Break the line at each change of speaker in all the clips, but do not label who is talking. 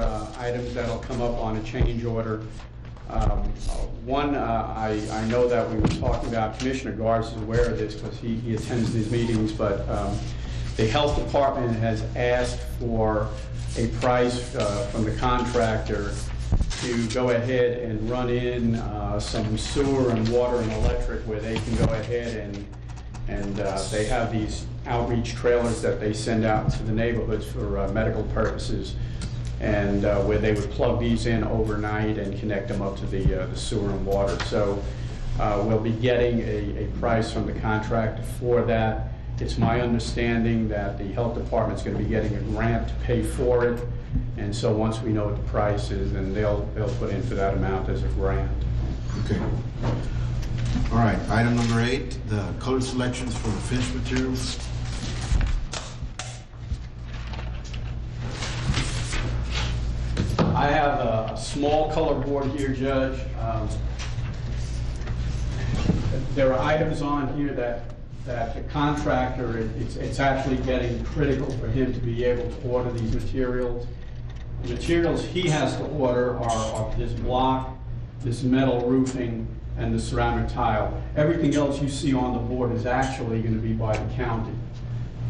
uh, items that'll come up on a change order. Um, uh, One, uh, I, I know that we were talking about, Commissioner Garbs is aware of this because he, he attends these meetings, but um, the health department has asked for a price uh, from the contractor to go ahead and run in uh, some sewer and water and electric where they can go ahead and, and uh, they have these outreach trailers that they send out to the neighborhoods for uh, medical purposes, and uh, where they would plug these in overnight and connect them up to the uh, the sewer and water. So uh, we'll be getting a, a price from the contractor for that. It's my understanding that the health department's going to be getting a grant to pay for it, and so once we know what the price is, then they'll, they'll put in for that amount as a grant.
Okay. All right, item number eight, the color selections for the finished materials.
I have a a small color board here, Judge. Um, There are items on here that, that the contractor, it- it's, it's actually getting critical for him to be able to order these materials. The materials he has to order are, are this block, this metal roofing, and the ceramic tile. Everything else you see on the board is actually gonna be by the county.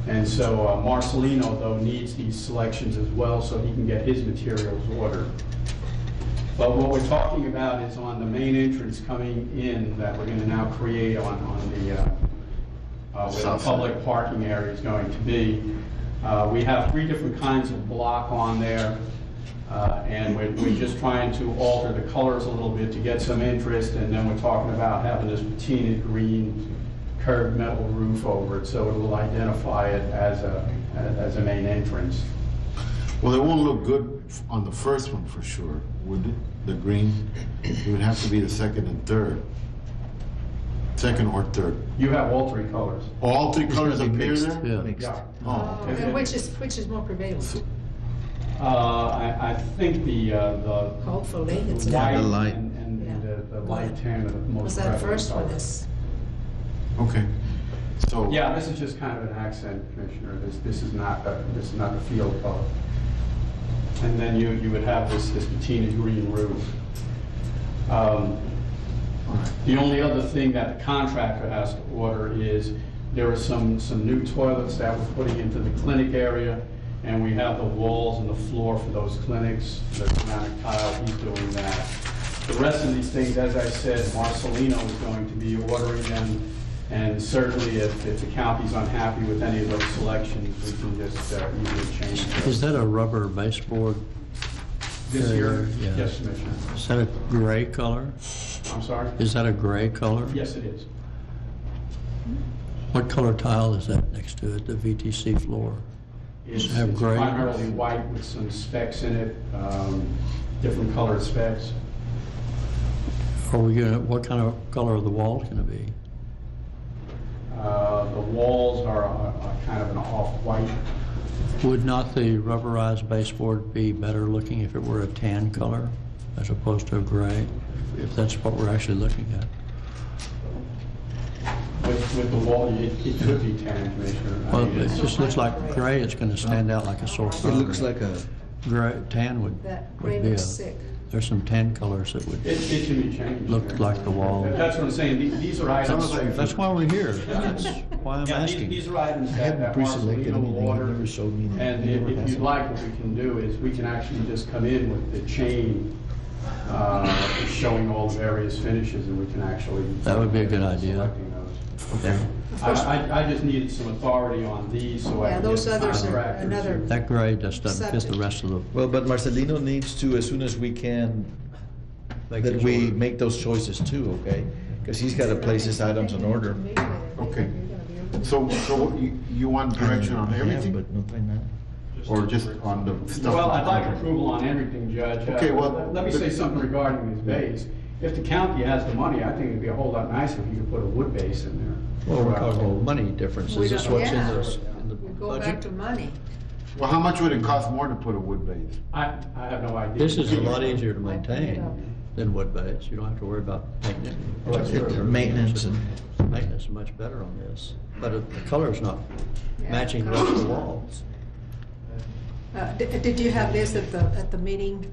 And so uh, Marcelino, though, needs these selections as well, so he can get his materials ordered. But what we're talking about is on the main entrance coming in, that we're gonna now create on, on the, uh, uh, where the
South side.
public parking area is going to be. Uh, We have three different kinds of block on there, uh, and we're, we're just trying to alter the colors a little bit to get some interest, and then we're talking about having this patina green curved metal roof over it, so it'll identify it as a, as a main entrance.
Well, it won't look good f- on the first one for sure, would it? The green, it would have to be the second and third. Second or third.
You have all three colors.
All three colors appear there?
Yeah.
Oh, okay.
okay.
Which is, which is more prevalent,
Uh, I, I think the, uh, the
hopefully, it's
the white
not.
light.
and, and and the, the light tan are the most.
Was that
prevalent
first one
colors.
is,
Okay, so.
Yeah, this is just kind of an accent, Commissioner. This, this is not, a- this is not the field color. And then you, you would have this, this patina green roof. Um,
all right.
The only other thing that the contractor has to order is, there are some, some new toilets that we're putting into the clinic area, and we have the walls and the floor for those clinics, the ceramic tile, he's doing that. The rest of these things, as I said, Marcelino is going to be ordering them, and certainly if, if the county's unhappy with any of those selections, we can just uh, easily change
Is
them.
that a rubber baseboard?
This year,
Yeah.
yes, Commissioner,
Is that a gray color?
I'm sorry?
Is that a gray color?
Yes, it is.
What color tile is that next to it, the VTC floor?
It's
Have
it's
gray.
primarily white with some specks in it, um, different colored specks.
Are we gonna, what kind of color are the walls gonna be?
Uh, The walls are a- a kind of an off-white.
Would not the rubberized baseboard be better looking if it were a tan color as opposed to a gray? If that's what we're actually looking at?
With with the wall, it it could be tan, Commissioner. I
Well,
mean,
it
it's-
just looks like gray, it's gonna stand out like a sore
It
thumb.
It looks like a,
Gray, tan would,
that
would
grade
be a,
was sick.
there's some tan colors that would,
It it can be changed.
Looked
Commissioner.
like the wall.
That's what I'm saying, The- these are items.
Sounds like-
that's why we're here. That's why I'm
Yeah, these-
asking.
These are items
I
that that
haven't pre-selected
Marcelino
anything, they
ordered.
never showed me. that.
And
They
if
never
if
passed
you'd
it.
like, what we can do is, we can actually just come in with the chain uh, showing all the various finishes, and we can actually...
That would be a good idea.
Selecting those.
Okay.
I, I- I just needed some authority on these, so I
Yeah,
can
those
get the
others are
contractors.
another-
That gray just doesn't fit the rest of the,
Well, but Marcelino needs to, as soon as we can,
Make
that
his
we
order.
make those choices too, okay? Because he's got to place his items in order.
Okay. So, so what you, you want direction on
I have,
everything
But not right now.
or just on the stuff?
Well, I'd like approval on everything, Judge. Uh,
Okay, well,
Let me
the-
say something regarding these bays. If the county has the money, I think it'd be a whole lot nicer if you could put a wood base in there.
well, we're talking money difference.
We
Is this
don't-
what's in
yeah.
the, in the
We go back
budget?
to money.
Well, how much would it cost more to put a wood base?
I, I have no idea.
This is a lot easier to
I put it up.
maintain than wood base. You don't have to worry about maintenance.
Oh,
Oh,
Well, that's true.
Maintenance and-
Maintenance is much better on this, but it- the color's not
Yeah, Uh,
matching the
color's
rest of the
not.
walls.
Uh, di- Did you have this at the, at the meeting